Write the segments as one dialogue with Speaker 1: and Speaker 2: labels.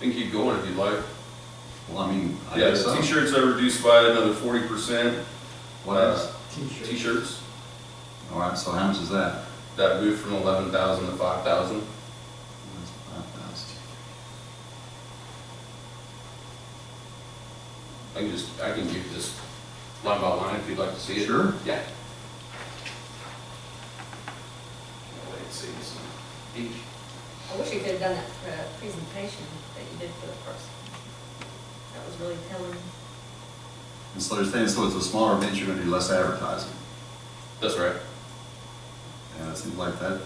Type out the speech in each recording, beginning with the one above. Speaker 1: can keep going if you'd like.
Speaker 2: Well, I mean, I
Speaker 1: Yeah,
Speaker 2: guess so.
Speaker 1: t-shirts are reduced by another forty percent, Uh,
Speaker 2: What else?
Speaker 1: t-shirts,
Speaker 2: All right, so how much is that?
Speaker 1: that moved from eleven thousand to five thousand.
Speaker 2: That's five thousand.
Speaker 1: I can just, I can give this line by line if you'd like to see it.
Speaker 2: Sure.
Speaker 1: Yeah. Wait, see, it's each,
Speaker 3: I wish you could have done that uh, presentation that you did for the first. That was really telling.
Speaker 2: And so they're saying, so it's a smaller event, you're gonna do less advertising.
Speaker 1: that's right.
Speaker 2: And it seems like that,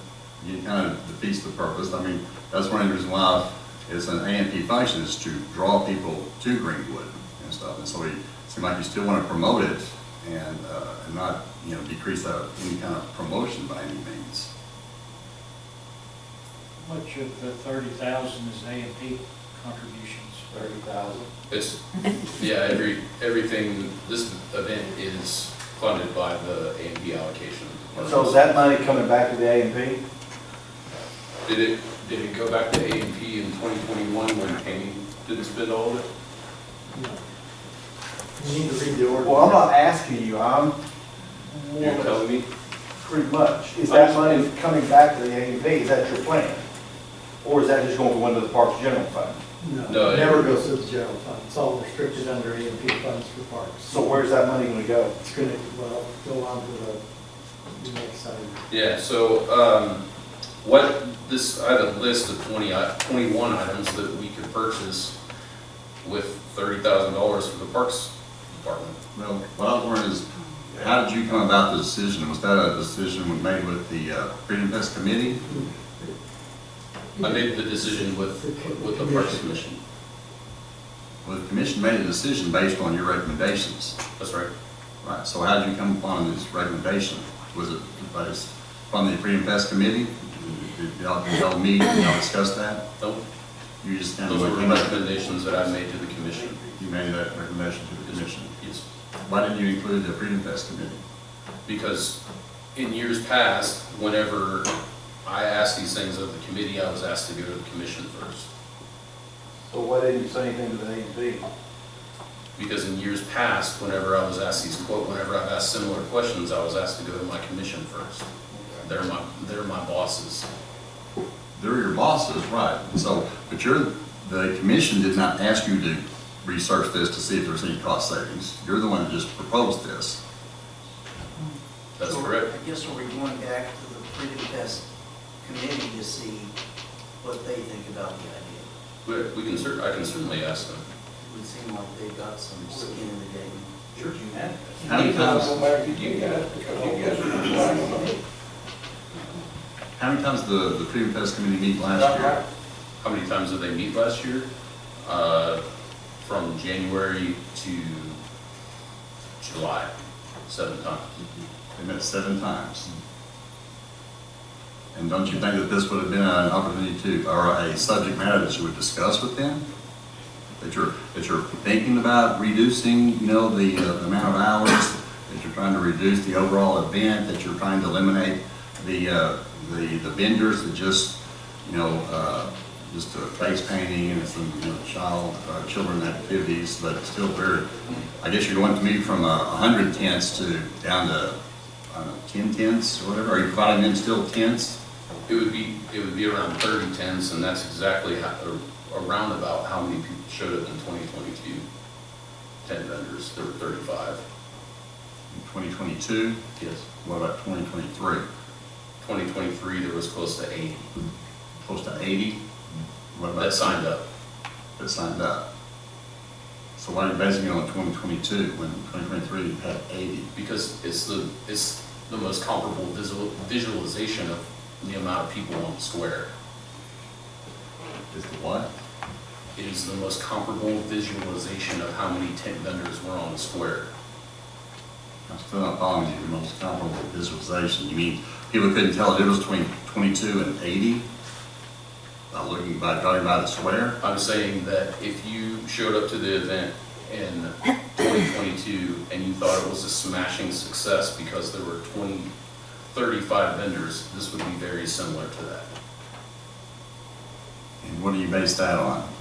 Speaker 2: you kind of defeats the purpose. I mean, that's one of the reasons why it's an AMP function is to draw people to Greenwood and stuff. And so we, seem like you still want to promote it and, uh, and not, you know, decrease that, any kind of promotion by any means.
Speaker 4: Much of the thirty thousand is A and P contributions.
Speaker 5: Thirty thousand.
Speaker 1: It's, yeah, every, everything, this event is funded by the A and B allocation.
Speaker 5: So is that money coming back to the A and P?
Speaker 1: Did it, did it go back to A and P in twenty twenty-one when Kane didn't spend all of it?
Speaker 6: You need to read the
Speaker 5: Well, I'm not asking you, I'm
Speaker 1: You're telling me?
Speaker 5: pretty much, is that money coming back to the A and P, is that your plan? Or is that just going to go into the Parks General Fund?
Speaker 1: No,
Speaker 6: No,
Speaker 1: it-
Speaker 6: it never goes to the general fund. It's all restricted under A and P funds for parks.
Speaker 5: So where's that money gonna go?
Speaker 6: It's going to, well, go on to the, the next item.
Speaker 1: Yeah, so, um, what, this, I have a list of twenty, i- twenty-one items that we could purchase with thirty thousand dollars from the Parks Department.
Speaker 2: Well, what I was wondering is, how did you come about the decision? Was that a decision made with the uh, Freedom Fest Committee?
Speaker 1: I made the decision with, with Mm-hmm. the Parks Commission,
Speaker 2: Well, the commission made a decision based on your recommendations,
Speaker 1: that's right.
Speaker 2: right? So how did you come upon this recommendation? Was it based from the Freedom Fest Committee? Did y'all, did y'all meet, did y'all discuss that?
Speaker 1: Those
Speaker 2: You just kind
Speaker 1: those were
Speaker 2: of,
Speaker 1: recommendations that I made to the commission.
Speaker 2: you made that recommendation to the commission.
Speaker 1: Yes.
Speaker 2: Why didn't you include the Freedom Fest Committee?
Speaker 1: because in years past, whenever I asked these things of the committee, I was asked to go to the commission first.
Speaker 5: So why didn't you say anything to the A and P?
Speaker 1: Because in years past, whenever I was asked these quote, whenever I've asked similar questions, I was asked to go to my commission first. They're my, they're my bosses.
Speaker 2: They're your bosses, right? And So, but you're, the commission did not ask you to research this to see if there's any cost savings. You're the one that just proposed this.
Speaker 1: That's
Speaker 7: So,
Speaker 1: correct.
Speaker 7: I guess we're going back to the Freedom Fest committee to see what they think about the idea.
Speaker 1: We, we can cer, I can certainly ask them.
Speaker 7: It would seem like they've got some skin in the game.
Speaker 5: Sure, you have.
Speaker 2: How many times, how many times the, the Freedom Fest Committee meet last year?
Speaker 1: How many times did they meet last year? Uh, from January to July, seven times.
Speaker 2: They met seven times. And don't you think that this would have been an opportunity to, or a subject matter that you would discuss with them? That you're, that you're thinking about reducing, you know, the, uh, the amount of hours, that you're trying to reduce the overall event, that you're trying to eliminate the, uh, the, the vendors that just, you know, uh, just uh, face painting and some, you know, child, uh, children activities, but it's still very, I guess you're going to move from a hundred tents to, down to, I don't know, ten tents or whatever? Are you providing them still tents?
Speaker 1: It would be, it would be around thirty tents, and that's exactly how, or around about how many people showed up in twenty twenty-two. Tent vendors, there were thirty-five.
Speaker 2: in 2022,
Speaker 1: Yes.
Speaker 2: what about 2023?
Speaker 1: Twenty twenty-three, there was close to eighty
Speaker 2: Close to 80? What about
Speaker 1: that signed up.
Speaker 2: That signed up. So why are you basing it on 2022 when 2023 had 80?
Speaker 1: Because it's the, it's the most comparable visual, visualization of the amount of people on the square.
Speaker 2: Is the what?
Speaker 1: It is the most comparable visualization of how many tent vendors were on the square.
Speaker 2: I'm still not following you, the most comparable visualization. You mean people couldn't tell the difference between 22 and 80 by looking, by driving by the square?
Speaker 1: I'm saying that if you showed up to the event in 2022 and you thought it was a smashing success because there were 20, 35 vendors, this would be very similar to that.
Speaker 2: And what do you base that on?